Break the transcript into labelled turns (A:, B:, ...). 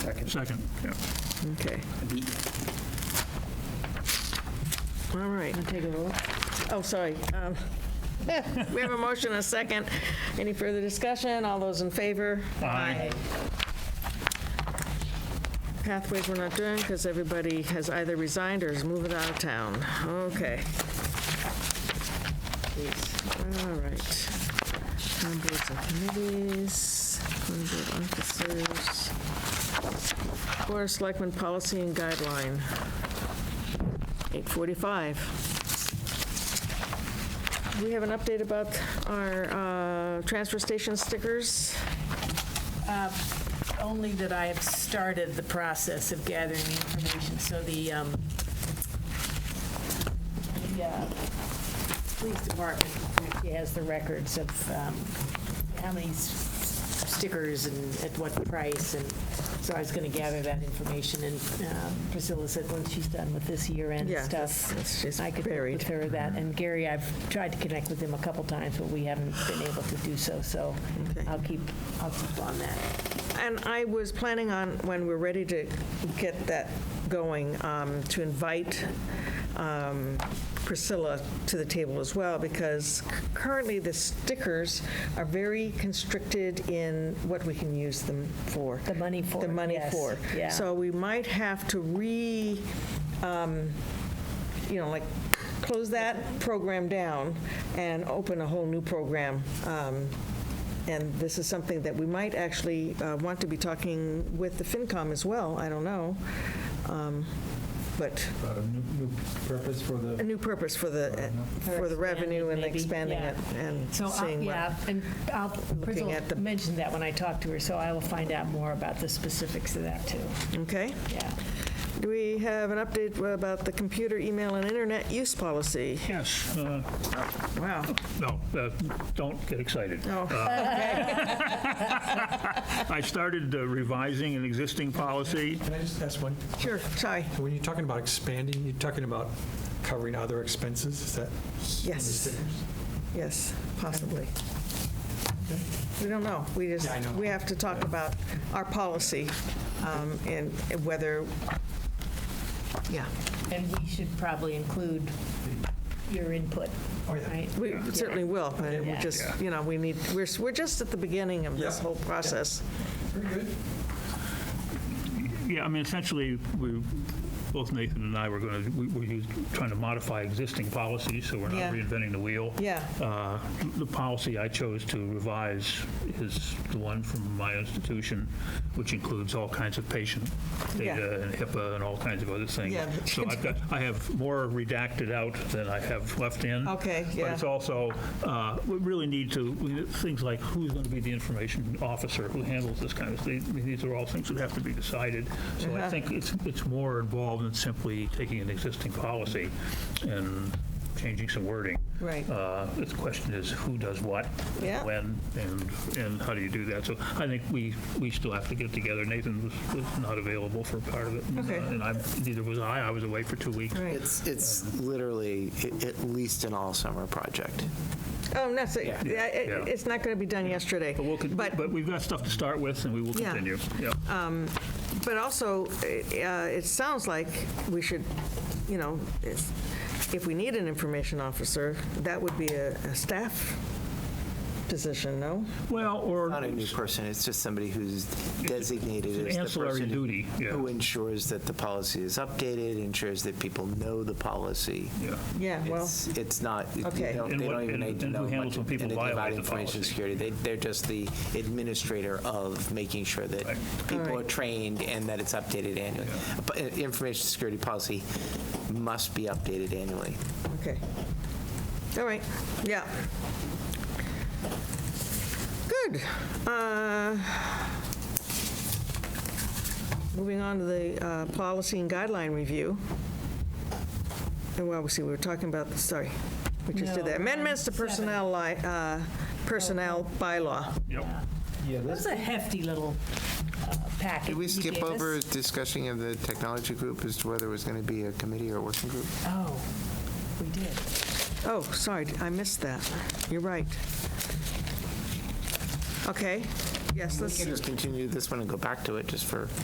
A: Second.
B: Second, yeah.
C: Okay. All right.
D: Take a roll.
C: Oh, sorry. Um, We have a motion and a second. Any further discussion? All those in favor?
B: Aye.
C: Pathways we're not doing because everybody has either resigned or is moving out of town. Okay. Please. All right. Town boards and committees, town board officers, Board of Selectmen Policy and Guideline, 845. Do we have an update about our uh, transfer station stickers?
D: Uh, Only that I have started the process of gathering the information, so the, um, the, uh, police department actually has the records of, um, how many s- stickers and at what price, and so I was gonna gather that information, and, um, Priscilla said once she's done with this year-end
C: Yeah,
D: stuff,
C: that's- that's
D: I could work
C: buried.
D: with her that, and Gary, I've tried to connect with him a couple times, but we haven't been able to do so, so
C: Okay.
D: I'll keep, I'll keep on that.
C: And I was planning on, when we're ready to get that going, um, to invite um, Priscilla to the table as well, because currently the stickers are very constricted in what we can use them for.
D: The money for
C: The
D: it,
C: money
D: yes,
C: for.
D: yeah.
C: So we might have to re, um, you know, like, close that program down and open a whole new program. Um, And this is something that we might actually uh, want to be talking with the FinCom as well, I don't know. Um, But
E: Uh,
A: About a new, new purpose for
C: a
A: the,
C: new purpose for the, for the revenue and expanding it and
D: So, uh, I'll-
C: seeing what.
D: yeah, and I'll, Priscilla
C: at the-
D: mentioned that when I talked to her, so I will find out more about the specifics of that, too.
C: Okay.
D: Yeah.
C: Do we have an update about the computer, email, and internet use policy?
B: Yes, uh,
C: Wow.
B: no, uh, don't get excited. Uh,
C: Oh.
B: I started uh, revising an existing policy.
E: Can I just ask one?
C: Sure, sorry.
E: When you're talking about expanding, you're talking about covering other expenses, is that?
C: Yes, yes, possibly. We don't know. We just,
E: Yeah, I know.
C: we have to talk about our policy um, and whether, yeah,
D: And we should probably include your input,
E: Oh, yeah.
D: right?
C: we certainly will. And we
D: Yeah.
C: just, you know, we need, we're, we're just at the beginning of this
E: Yeah.
C: whole process.
E: Very good.
B: Yeah, I mean, essentially, we, both Nathan and I were going to, we were us- trying to modify existing policies, so we're
C: Yeah.
B: not reinventing the wheel.
C: Yeah.
B: Uh, The policy I chose to revise is the one from my institution, which includes all kinds of patient
C: Yeah.
B: data and HIPAA and all kinds of other things.
C: Yeah, but
B: So
C: you
B: I've got, I have more redacted out than I have left in.
C: Okay,
B: But
C: yeah.
B: it's also, uh, we really need to, we- things like who's going to be the information officer, who handles this kind of thing, I mean, these are all things that have to be decided. So
C: Uh-huh.
B: I think it's, it's more involved than simply taking an existing policy and changing some wording.
C: Right.
B: Uh, The question is, who does what?
C: Yeah.
B: When, and, and how do you do that? So I think we, we still have to get together. Nathan was, was not available for part of it.
C: Okay.
B: And I, neither was I, I was away for two weeks.
C: Right.
F: It's, it's literally a- at least an all-summer project.
C: Oh, no, so, yeah, it-
B: Yeah.
C: it's not going to be done yesterday.
B: But we'll, con- but we've got stuff to start with, and we will
C: Yeah. Uh,
B: continue. Yeah.
C: But also, eh, uh, it sounds like we should, you know, if if we need an information officer, that would be a a staff position, no?
B: Well, or.
F: Not a new person, it's just somebody who's designated
B: It's an
F: as the
B: ancillary
F: person
B: duty, yeah.
F: who ensures that the policy is updated, ensures that people know the policy.
B: Yeah.
C: Yeah, well,
F: It's, it's not, they
C: Okay.
F: don't
B: And
F: they
B: what-
F: don't even
B: and-
F: need to
B: and who
F: know
B: handles
F: much
B: when people
F: anything about
B: violate the
F: information
B: policy?
F: security. They, they're just the administrator of making sure that
B: Right.
F: people are
C: Alright.
F: trained and that it's updated annually. But uh, Information security policy must be updated annually.
C: okay. All right, yeah. Good. Uh, Moving on to the uh, policy and guideline review. And well, we see, we were talking about, sorry, we just did
D: No,
C: that.
D: um,
C: Amendments to
D: seven.
C: personnel li, uh, personnel bylaw.
B: Yep.
A: yeah,
D: That
A: that's,
D: was a hefty little uh, packet.
F: Did we
D: you
F: skip
D: gave us.
F: over discussion of the technology group as to whether it was going to be a committee or a working group?
D: Oh, we did.
C: Oh, sorry, I missed that. You're right. Okay, yes,
F: We
C: let's.
F: can just continue this one and go back to it just for.